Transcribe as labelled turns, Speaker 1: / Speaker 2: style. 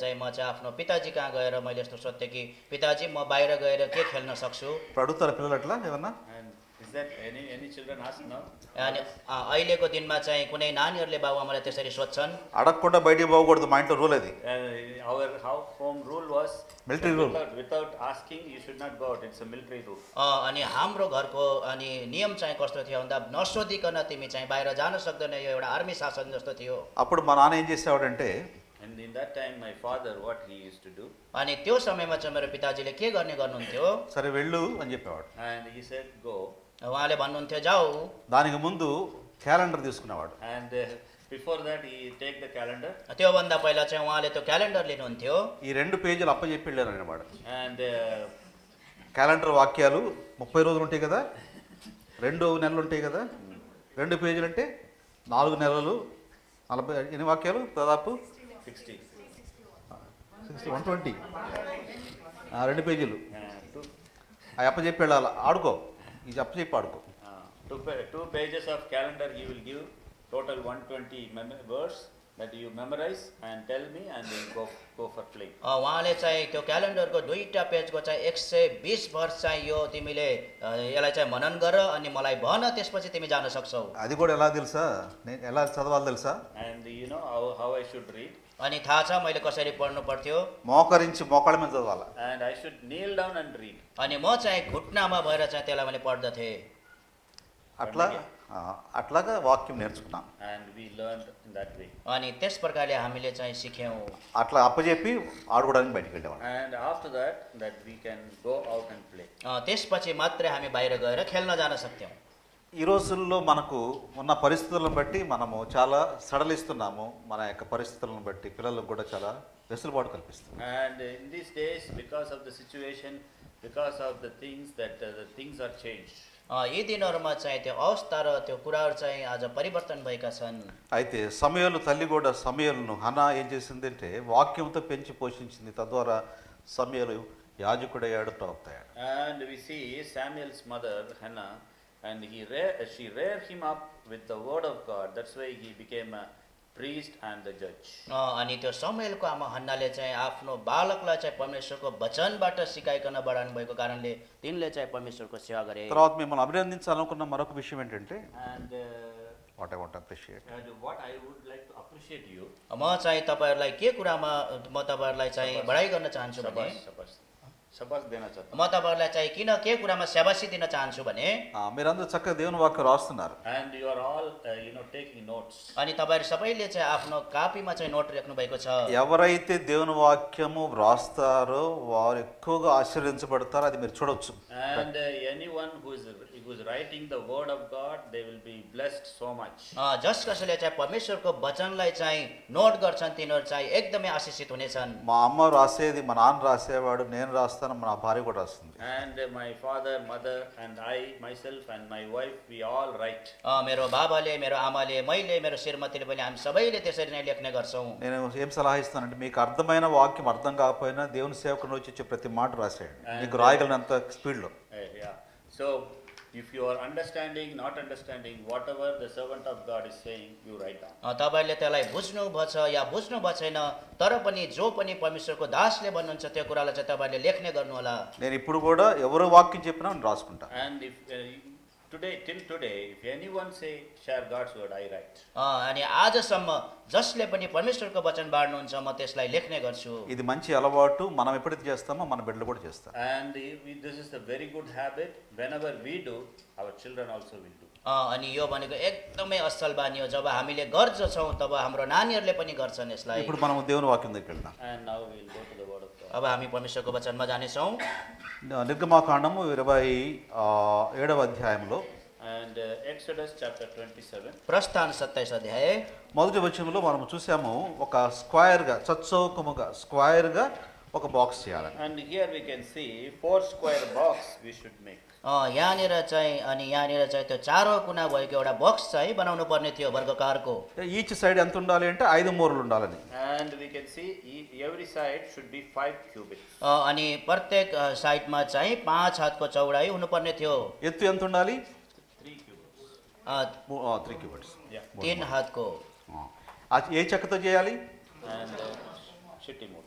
Speaker 1: चाहिँ म चाहिँ आफ्नो पिताजी कहाँ गएर मैले यस्तो सोध्थेँ कि पिताजी म बाहिर गएर के खेल्न सक्छु
Speaker 2: ఇప్పుడు అడుగుతారు పిల్లలు అట్లా ఏమన్నా
Speaker 3: And is that any any children ask now?
Speaker 1: अनि अ, अहिलेको दिनमा चाहिँ कुनै नानीहरूले बाबुआमालाई त्यसरी सोध्छन्
Speaker 2: అడగకుండా బయటికి పోకూడదు మా ఇంట్లో రూల్ అది
Speaker 3: Uh, our how home rule was
Speaker 2: Military rule.
Speaker 3: Without, without asking, you should not go out. It's a military rule.
Speaker 1: अ, अनि हाम्रो घरको अनि नियम चाहिँ कस्तो थियो भन्दा नसोधिकन तिमी चाहिँ बाहिर जान सक्दैन यो एउटा आर्मी शासन जस्तो थियो
Speaker 2: అప్పుడు మా నాన్న ఏం చేసేవాడంటే
Speaker 3: And in that time, my father, what he used to do,
Speaker 1: अनि त्यो समयमा चाहिँ मेरो पिताजीले के गर्ने गर्नुहुन्थ्यो
Speaker 2: సరే వెళ్ళు అని చెప్పేవాడు
Speaker 3: and he said, go.
Speaker 1: उहाँले भन्नुहुन्थ्यो जाऊ
Speaker 2: దానికి ముందు క్యాలెండర్ తీసుకునేవాడు
Speaker 3: And uh, before that, he take the calendar
Speaker 1: त्योभन्दा पहिला चाहिँ उहाँले त्यो क्यालेन्डर लिनुहुन्थ्यो
Speaker 2: ఈ రెండు పేజీలు అప్పచెప్పి వెళ్ళారు ఆయన వాడు
Speaker 3: and uh,
Speaker 2: క్యాలెండర్ వాక్యాలు ముప్పై రోజులు ఉంటాయి కదా రెండు నెలలు ఉంటాయి కదా రెండు పేజీలు అంటే నాలుగు నెలలు నలభై ఎన్ని వాక్యాలు దాదాపు
Speaker 3: 60.
Speaker 2: సిక్స్టీ వన్ ట్వంటీ రెండు పేజీలు
Speaker 3: Uh, two,
Speaker 2: అవి అప్పచెప్పి వెళ్ళాలి ఆడుకో ఇది అప్పచెప్పి ఆడుకో
Speaker 3: uh, two, pa- two pages of calendar he will give, total 120 mem- words that you memorize and tell me, and then go, go for play.
Speaker 1: अ, उहाँले चाहिँ त्यो क्यालेन्डरको दुईवटा पेजको चाहिँ एक सय बिस वर्ष चाहिँ यो तिमीले अ, यसलाई चाहिँ मनन गर अनि मलाई भन त्यसपछि तिमी जान सक्छौ
Speaker 2: అది కూడా ఎలా తెలుసా నేను ఎలా చదవాలి తెలుసా
Speaker 3: And you know how, how I should read.
Speaker 1: अनि थाहा छ मैले कसरी पढ्नु पर्थ्यो
Speaker 2: మోకరించి మోకాళ్ళ మీద చదవాలి
Speaker 3: And I should kneel down and read.
Speaker 1: अनि म चाहिँ घुट्नामा भएर चाहिँ त्यसलाई मैले पढ्दथेँ
Speaker 2: అట్లా ఆ, అట్లాగా వాక్యం నేర్చుకున్నాం
Speaker 3: And we learned in that way.
Speaker 1: अनि त्यस प्रकारले हामीले चाहिँ सिक्यौँ
Speaker 2: అట్లా అప్పచెప్పి ఆడుకోవడానికి బయటికి వెళ్ళేవాడు
Speaker 3: And after that, that we can go out and play.
Speaker 1: अ, त्यसपछि मात्रै हामी बाहिर गएर खेल्न जान सक्थ्यौँ
Speaker 2: ఈ రోజుల్లో మనకు ఉన్న పరిస్థితులను బట్టి మనము చాలా సడలిస్తున్నాము మన యొక్క పరిస్థితులను బట్టి పిల్లలకు కూడా చాలా వెసులుబాటు కల్పిస్తుంది
Speaker 3: And in these days, because of the situation, because of the things that uh, the things are changed.
Speaker 1: अ, यी दिनहरूमा चाहिँ त्यो अवस्था र त्यो कुराहरू चाहिँ आज परिवर्तन भएका छन्
Speaker 2: అయితే సమయంలో తల్లి కూడా సమయంను హనా ఏం చేసిందంటే వాక్యంతో పెంచి పోషించింది తద్వారా సమయాలు యాజకుడయ్యాడు ప్రవక్త అయ్యాడు
Speaker 3: And we see Samuel's mother Hannah, and he rear, uh, she reared him up with the word of God. That's why he became a priest and the judge.
Speaker 1: अ, अनि त्यो समयको आमा हन्नाले चाहिँ आफ्नो बालकलाई चाहिँ परमेश्वरको वचनबाट सिकाइकन बढाउनु भएको कारणले तिनले चाहिँ परमेश्वरको सेवा गरे
Speaker 2: తర్వాత మిమ్మల్ని అభినందించాలనుకున్న మరొక విషయం ఏంటంటే
Speaker 3: And uh,
Speaker 2: what I want appreciate
Speaker 3: and what I would like to appreciate you.
Speaker 1: म चाहिँ तपाईँहरूलाई के कुरामा म तपाईँहरूलाई चाहिँ बढाइ गर्न चाहन्छु भने
Speaker 3: Shabash, shabash. Shabash dena chahta
Speaker 1: म तपाईँहरूलाई चाहिँ किन के कुरामा सेवासी दिन चाहन्छु भने
Speaker 2: మీరందరూ చక్కగా దేవుని వాక్యం రాస్తున్నారు
Speaker 3: And you are all, uh, you know, taking notes.
Speaker 1: अनि तपाईँहरू सबैले चाहिँ आफ्नो कापीमा चाहिँ नोट राख्नु भएको छ
Speaker 2: ఎవరైతే దేవుని వాక్యము వ్రాస్తారో వారు ఎక్కువగా ఆశీర్వదించబడతారో అది మీరు చూడొచ్చు
Speaker 3: And uh, anyone who is who is writing the word of God, they will be blessed so much.
Speaker 1: अ, जस कसैले चाहिँ परमेश्वरको वचनलाई चाहिँ नोट गर्छन् तिनीहरू चाहिँ एकदमै आशिषित हुनेछन्
Speaker 2: మా అమ్మ రాసేది మా నాన్న రాసేవాడు నేను రాస్తాను మా భార్య కూడా రాస్తుంది
Speaker 3: And uh, my father, mother, and I, myself, and my wife, we all write.
Speaker 1: अ, मेरो बाबाले मेरो आमाले मैले मेरो श्रीमतीले पनि हामी सबैले त्यसरी नै लेख्ने गर्छौँ
Speaker 2: నేను ఏం సలహా ఇస్తానంటే మీకు అర్థమైన వాక్యం అర్థం కాకపోయినా దేవుని సేవకుని వచ్చి ఇచ్చే ప్రతి మాట రాసేయండి మీకు రాయగలిగినంత స్పీడ్లో
Speaker 3: Uh, yeah. So, if you are understanding, not understanding, whatever the servant of God is saying, you write down.
Speaker 1: अ, तपाईँले त्यसलाई बुझ्नु भएछ या बुझ्नु भएको छैन तर पनि जो पनि परमेश्वरको दासले भन्नुहुन्छ त्यो कुरालाई चाहिँ तपाईँले लेख्ने गर्नुहोला
Speaker 2: నేను ఇప్పుడు కూడా ఎవరు వాక్యం చెప్పినా నేను రాసుకుంటా
Speaker 3: And if uh, you- today, till today, if anyone say share God's word, I write.
Speaker 1: अ, अनि आजसम्म जसले पनि परमेश्वरको वचन बाँड्नुहुन्छ म त्यसलाई लेख्ने गर्छु
Speaker 2: ఇది మంచి అలవాటు మనం ఎప్పుడైతే చేస్తామో మన బిడ్డలు కూడా చేస్తారు
Speaker 3: And if we- this is a very good habit. Whenever we do, our children also will do.
Speaker 1: अ, अनि यो भनेको एकदमै असल बानी हो जब हामीले गर्छौँ तब हाम्रो नानीहरूले पनि गर्छन् यसलाई
Speaker 2: ఇప్పుడు మనం దేవుని వాక్యం దగ్గరికి వెళ్దాం
Speaker 3: And now we will go to the word of God.
Speaker 1: अब हामी परमेश्वरको वचनमा जानेछौँ
Speaker 2: నిర్గమాకాండము ఇరవై ఆ, ఏడవ అధ్యాయంలో
Speaker 3: And uh, Exodus chapter 27.
Speaker 1: प्रस्थान सत्ताइस अध्याय
Speaker 2: మొదటి వచనంలో మనం చూసాము ఒక స్క్వైర్గా చచ్చౌకముగా స్క్వైర్గా ఒక బాక్స్ చేయాలని
Speaker 3: And here we can see four square box we should make.
Speaker 1: अ, यहाँनिर चाहिँ अनि यहाँनिर चाहिँ त्यो चारो कुना भएको एउटा बक्स चाहिँ बनाउनु पर्ने थियो वर्गकारको
Speaker 2: ఈచ్ సైడ్ ఎంత ఉండాలి అంటే ఐదు మూరలు ఉండాలని
Speaker 3: And we can see e- every side should be five cubits.
Speaker 1: अ, अनि प्रत्येक अ, साइडमा चाहिँ पाँच हातको चौडाइ हुनुपर्ने थियो
Speaker 2: ఎత్తు ఎంత ఉండాలి
Speaker 3: Three cubits.
Speaker 1: Uh,
Speaker 2: three cubits
Speaker 3: Yeah.
Speaker 1: तिन हातको
Speaker 2: ఏ చెక్కతో చేయాలి
Speaker 3: And uh, Shittimur.